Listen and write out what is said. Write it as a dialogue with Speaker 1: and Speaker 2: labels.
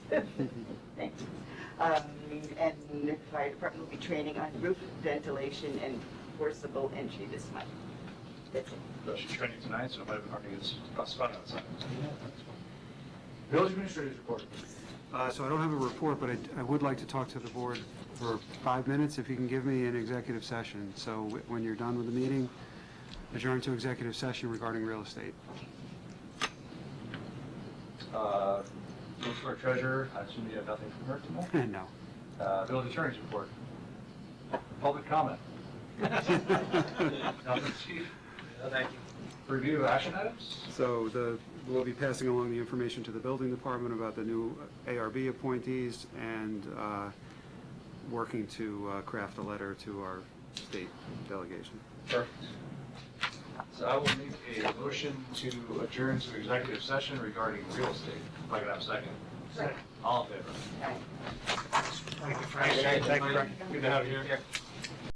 Speaker 1: Thanks. Um, And the fire department will be training on roof ventilation and forcible entry this month. That's it.
Speaker 2: She's training tonight, so it might be hard to get s- spot outside.
Speaker 3: Village Administrator's Report.
Speaker 4: Uh, So I don't have a report, but I- I would like to talk to the board for five minutes, if you can give me an executive session. So wh- when you're done with the meeting, adjourn to executive session regarding real estate.
Speaker 2: Uh, Look for a treasurer, I assume you have nothing from her tonight.
Speaker 4: No.
Speaker 2: Uh, Village Attorney's Report. Public comment. Nothing, Chief. Thank you. Review action items.
Speaker 4: So the, we'll be passing along the information to the building department about the new ARB appointees and uh, working to uh, craft a letter to our state delegation.
Speaker 2: Perfect. So I will make a motion to adjourn to executive session regarding real estate. If I could have a second. All in favor?
Speaker 1: All right.
Speaker 2: Thank you, Frank. Good to have you here.